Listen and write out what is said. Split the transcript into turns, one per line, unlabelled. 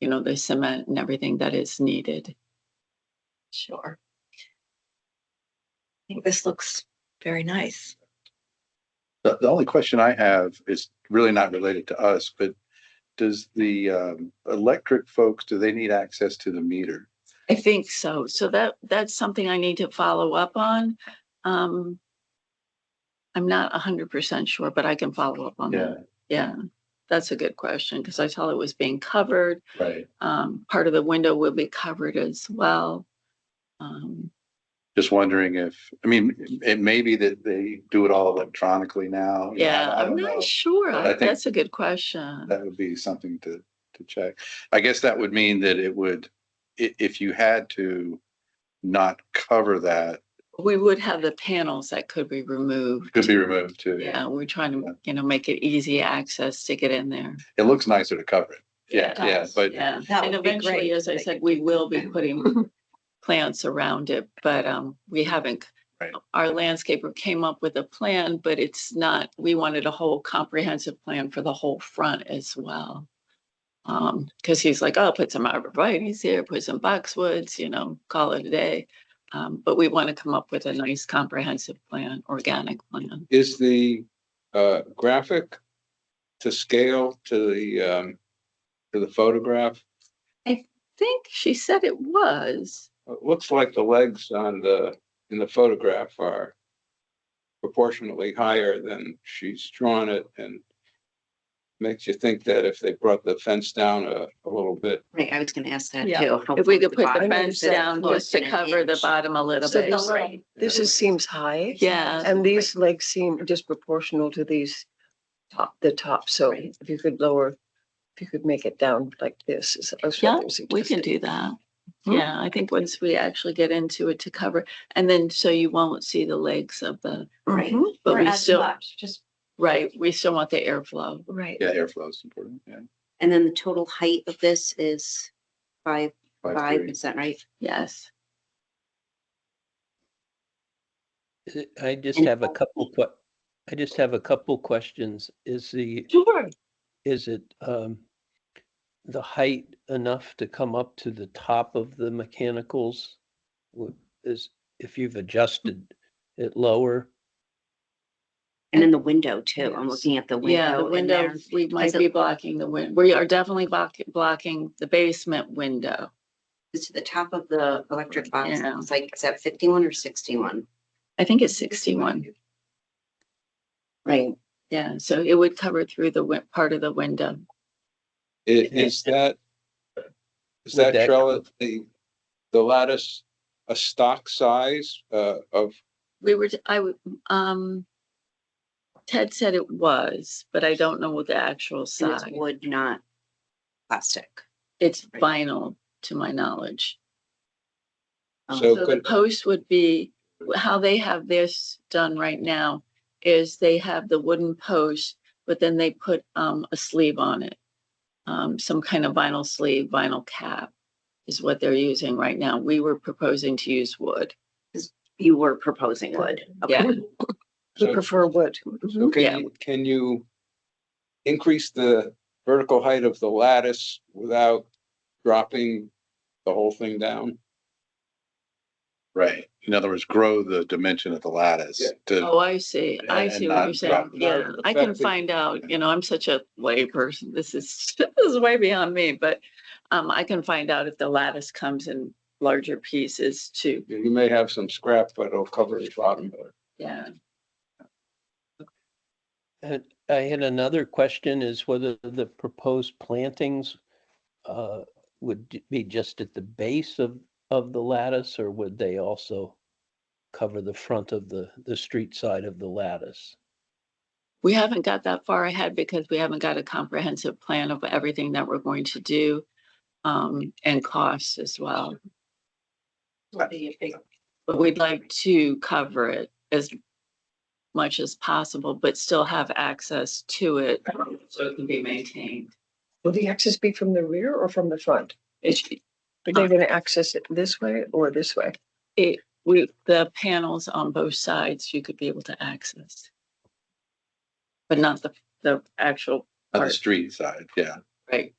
you know, the cement and everything that is needed.
Sure. I think this looks very nice.
The, the only question I have is really not related to us, but does the um, electric folks, do they need access to the meter?
I think so. So that, that's something I need to follow up on. Um, I'm not hundred percent sure, but I can follow up on that. Yeah, that's a good question because I saw it was being covered.
Right.
Um, part of the window will be covered as well. Um,
Just wondering if, I mean, it may be that they do it all electronically now. you know,
yeah,
I
I'm
don't know.
not sure.
But I
I-
think-
That's a good question.
That would be something to, to check. I guess that would mean that it would, i- if you had to not cover that,
We would have the panels that could be removed.
could be removed too.
Yeah, we're trying
Yeah.
to, you know, make it easy access to get in there.
It looks nicer to cover it. Yeah,
Yeah, it
yeah,
does.
but
Yeah,
That
and
would be great
eventually, as
if
I
they
said,
could
we
do
will be
that.
putting plants around it, but um, we haven't.
Right.
Our landscaper came up with a plan, but it's not, we wanted a whole comprehensive plan for the whole front as well. Um, because he's like, oh, put some arborvitae's here, put some boxwoods, you know, call it a day. Um, but we want to come up with a nice comprehensive plan, organic plan.
Is the uh graphic to scale to the um, to the photograph?
Think she said it was.
It looks like the legs on the, in the photograph are proportionately higher than she's drawn it and makes you think that if they brought the fence down a, a little bit,
Right, I was gonna ask that
Yeah.
too.
If we could put the fence down just to cover the bottom a little
So
bit.
those- This is, seems high.
Yeah.
And these legs seem disproportional to these top, the top. So
Right.
if you could lower, if you could make it down like this is. that's what
Yeah,
I'm
We can
suggesting.
do that.
Hmm.
Yeah, I think once we actually get into it to cover, and then so you won't see the legs of the,
Right.
Mhm.
but we still,
Just,
right, we still want the airflow.
Right.
yeah, airflow is important, yeah.
And then the total height of this is five,
Five
five,
three.
is that right?
Yes.
Uh, I just
And
have a
how
couple, que- I just have a couple questions. Is the,
Sure.
is it um the height enough to come up to the top of the mechanicals? Wh- Is, if you've adjusted it lower?
And then the window too. I'm
Yes.
looking at the window.
Yeah, the
and
window,
there's-
we might
does it-
be blocking the win, we are definitely blocking, blocking the basement window.
It's to the top of the electric box.
Yeah.
It's like, is that fifty-one or sixty-one?
I think it's sixty-one.
Right.
Yeah, so it would cover through the win, part of the window.
i- is that is
Would
that
that-
trellis, the, the lattice, a stock size uh of
We were, t- I, w- um, Ted said it was, but I don't know what the actual
And
size.
it's wood, not plastic.
It's
Right.
vinyl, to my knowledge.
Um,
So
So the
could-
post would be, how they have this done right now is they have the wooden post, but then they put um a sleeve on it. Um, some kind of vinyl sleeve, vinyl cap is what they're using right now. We were proposing to use wood.
You were proposing wood.
Yeah.
Okay.
We
so
prefer wood.
So
Yeah.
can you, can you increase the vertical height of the lattice without dropping the whole thing down?
Right. In other words, grow the dimension of the lattice
Yeah.
to,
Oh, I see. I
And
see what you're
not
saying.
drop-
Yeah,
not
I can
affecting-
find out, you know, I'm such a layperson. This is, this is way beyond me, but um, I can find out if the lattice comes in larger pieces too.
You you may have some scrap, but it'll cover the bottom of it.
Yeah.
And I had another question is whether the proposed plantings uh would j- be just at the base of, of the lattice or would they also cover the front of the, the street side of the lattice?
We haven't got that far ahead because we haven't got a comprehensive plan of everything that we're going to do um, and costs as well.
will be a big
But we'd like to cover it as much as possible, but still have access to it so it can be maintained.
Will the access be from the rear or from the front?
It's,
Are they going to access it this way or this way?
it, we, the panels on both sides, you could be able to access. But not the, the actual
on the
part.
street side, yeah.
Right.